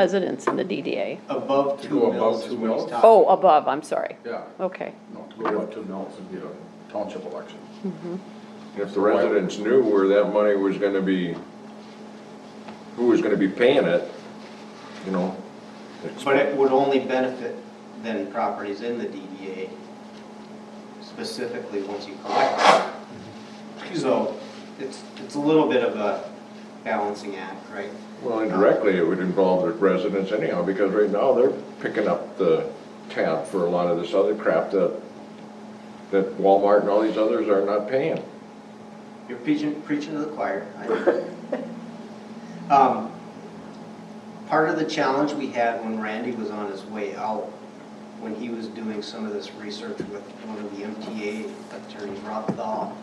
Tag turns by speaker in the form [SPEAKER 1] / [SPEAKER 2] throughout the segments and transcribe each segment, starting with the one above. [SPEAKER 1] residents in the DDA.
[SPEAKER 2] Above two
[SPEAKER 3] Go above
[SPEAKER 2] mills is
[SPEAKER 3] two
[SPEAKER 2] what he's
[SPEAKER 3] mills?
[SPEAKER 2] talking.
[SPEAKER 1] Oh, above, I'm sorry.
[SPEAKER 3] Yeah,
[SPEAKER 1] Okay.
[SPEAKER 3] no, to go up to mills would be a township election.
[SPEAKER 4] If the residents knew where that money was gonna be, who was gonna be paying it, you know? it's-
[SPEAKER 2] But it would only benefit then properties in the DDA specifically once you collect it. So it's, it's a little bit of a balancing act, right?
[SPEAKER 4] Well, indirectly, it would involve the residents anyhow, because right now, they're picking up the tab for a lot of this other crap that, that Walmart and all these others are not paying.
[SPEAKER 2] You're preaching, preaching to the choir. I know. Um, Part of the challenge we had when Randy was on his way out, when he was doing some of this research with one of the MTA attorneys, Rob Dahl,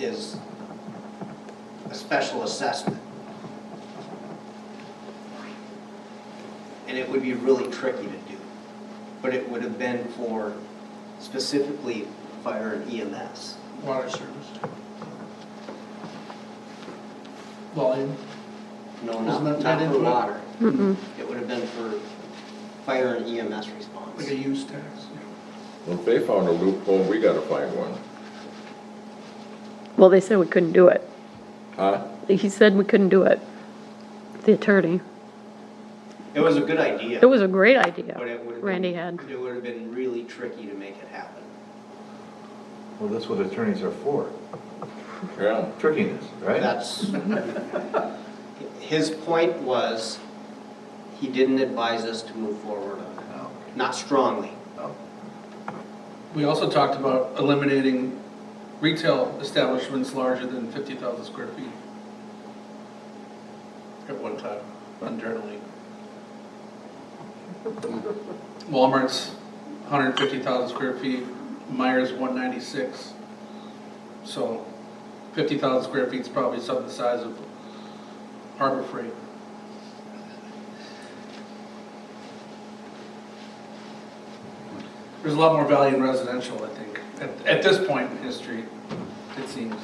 [SPEAKER 2] is a special assessment. And it would be really tricky to do, but it would have been for specifically fire and E EMS.
[SPEAKER 5] Water service. Volume,
[SPEAKER 2] No,
[SPEAKER 5] Isn't
[SPEAKER 2] not,
[SPEAKER 5] that
[SPEAKER 2] not
[SPEAKER 5] tied
[SPEAKER 2] for
[SPEAKER 5] into it?
[SPEAKER 2] water.
[SPEAKER 1] Mm-mm.
[SPEAKER 2] It would have been for fire and EMS
[SPEAKER 5] like a
[SPEAKER 2] response.
[SPEAKER 5] use tax.
[SPEAKER 4] Well, If they found a loophole, we gotta find one.
[SPEAKER 1] Well, they said we couldn't do it.
[SPEAKER 4] Huh?
[SPEAKER 1] He said we couldn't do it, the attorney.
[SPEAKER 2] It was a good idea,
[SPEAKER 1] It was a great
[SPEAKER 2] but
[SPEAKER 1] idea
[SPEAKER 2] it would have been.
[SPEAKER 1] Randy had.
[SPEAKER 2] It would have been really tricky to make it happen.
[SPEAKER 6] Well, that's what attorneys are for,
[SPEAKER 4] Yeah.
[SPEAKER 6] trickiness, right?
[SPEAKER 2] That's, his point was, he didn't advise us to move forward on
[SPEAKER 6] No,
[SPEAKER 2] it, not strongly.
[SPEAKER 6] no.
[SPEAKER 5] We also talked about eliminating retail establishments larger than fifty thousand square feet. At one time, internally. Walmart's hundred and fifty thousand square feet, Myers one ninety-six. So fifty thousand square feet is probably something the size of Harbor Freight. There's a lot more value in residential, I think, at, at this point in history, it seems.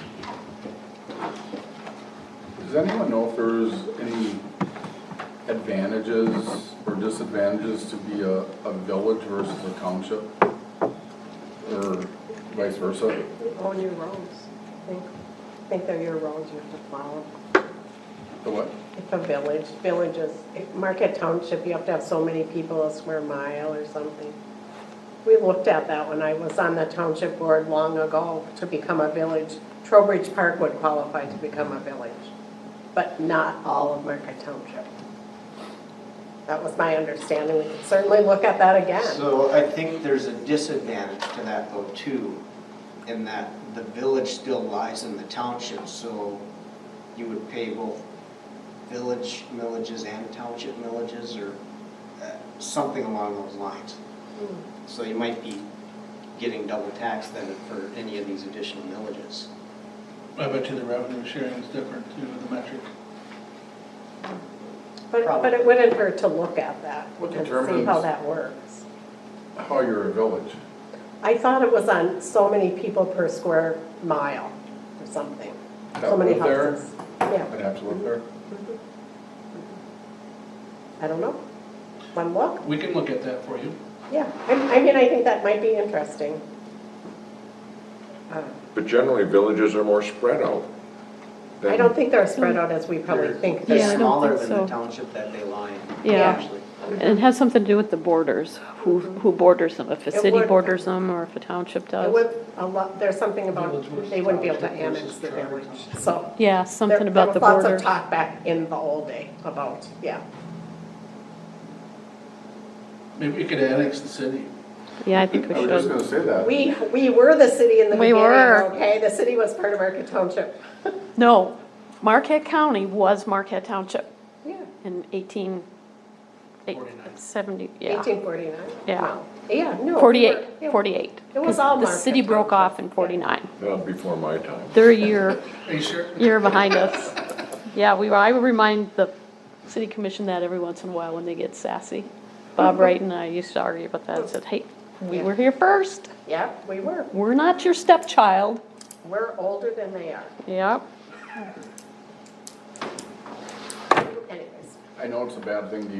[SPEAKER 3] Does anyone know if there's any advantages or disadvantages to be a, a village versus a township? Or vice versa?
[SPEAKER 7] Own your roads. I think, I think they're your roads, you have to plow
[SPEAKER 3] The what?
[SPEAKER 7] them. If a village, villages, if Market Township, you have to have so many people a square mile or something. We looked at that when I was on the township board long ago to become a village. Trowbridge Park would qualify to become a village, but not all of Market Township. That was my understanding. We could certainly look at that again.
[SPEAKER 2] So I think there's a disadvantage to that though too, in that the village still lies in the township, so you would pay both village millages and township millages or uh, something along those lines.
[SPEAKER 1] Hmm.
[SPEAKER 2] So you might be getting double tax then for any of these additional millages.
[SPEAKER 5] I bet you the revenue sharing is different too, the metric.
[SPEAKER 7] But, but it wouldn't hurt to look at that
[SPEAKER 3] What
[SPEAKER 7] and see how
[SPEAKER 3] determines-
[SPEAKER 7] that works.
[SPEAKER 3] How you're a village?
[SPEAKER 7] I thought it was on so many people per square mile or something, so
[SPEAKER 3] That
[SPEAKER 7] many
[SPEAKER 3] live there?
[SPEAKER 7] houses. Yeah,
[SPEAKER 3] I'd have to live there.
[SPEAKER 7] I don't know. One look,
[SPEAKER 5] We can look at that for you.
[SPEAKER 7] yeah. I, I mean, I think that might be interesting. Uh,
[SPEAKER 4] But generally, villages are more spread out. than-
[SPEAKER 7] I don't think they're spread out as we probably think.
[SPEAKER 1] Yeah, I
[SPEAKER 2] They're
[SPEAKER 1] don't
[SPEAKER 7] they're-
[SPEAKER 2] smaller
[SPEAKER 1] think
[SPEAKER 2] than
[SPEAKER 1] so.
[SPEAKER 2] the township that they lie in.
[SPEAKER 1] Yeah.
[SPEAKER 2] actually.
[SPEAKER 1] And it has something to do with the borders, who, who borders them, if a
[SPEAKER 7] It
[SPEAKER 1] city
[SPEAKER 7] would-
[SPEAKER 1] borders them or if a township
[SPEAKER 7] It
[SPEAKER 1] does.
[SPEAKER 7] would, a lot, there's something about, they wouldn't be able to annex the village, so.
[SPEAKER 1] Yeah, something
[SPEAKER 7] There-
[SPEAKER 1] about the
[SPEAKER 7] There was lots
[SPEAKER 1] borders.
[SPEAKER 7] of talk back in the old day about, yeah.
[SPEAKER 5] Maybe we could annex the city.
[SPEAKER 1] Yeah, I think we
[SPEAKER 3] I was just
[SPEAKER 1] should.
[SPEAKER 3] gonna say that.
[SPEAKER 7] We, we were the city in the
[SPEAKER 1] We
[SPEAKER 7] beginning,
[SPEAKER 1] were.
[SPEAKER 7] okay? The city was part of Market Township.
[SPEAKER 1] No, Marquette County was Marquette Township
[SPEAKER 7] Yeah.
[SPEAKER 1] in eighteen, eight,
[SPEAKER 5] Forty-nine.
[SPEAKER 1] seventy, yeah.
[SPEAKER 7] 1849?
[SPEAKER 1] Yeah.
[SPEAKER 7] No. Yeah, no. we
[SPEAKER 1] Forty-eight,
[SPEAKER 7] were-
[SPEAKER 1] forty-eight.
[SPEAKER 7] It was all
[SPEAKER 1] The
[SPEAKER 7] Marquette
[SPEAKER 1] city broke
[SPEAKER 7] Township.
[SPEAKER 1] off in forty-nine.
[SPEAKER 4] Well, uh, before my time.
[SPEAKER 1] They're a year,
[SPEAKER 5] Are you sure?
[SPEAKER 1] year behind us. Yeah, we, I remind the city commission that every once in a while when they get sassy.
[SPEAKER 7] Mm-hmm.
[SPEAKER 1] Bob Wright and I used to argue about that, I said, hey, we were here first,
[SPEAKER 7] Yeah, we were.
[SPEAKER 1] we're not your stepchild.
[SPEAKER 7] We're older than they are.
[SPEAKER 1] Yep,
[SPEAKER 7] Anyways.
[SPEAKER 3] I know it's a bad thing to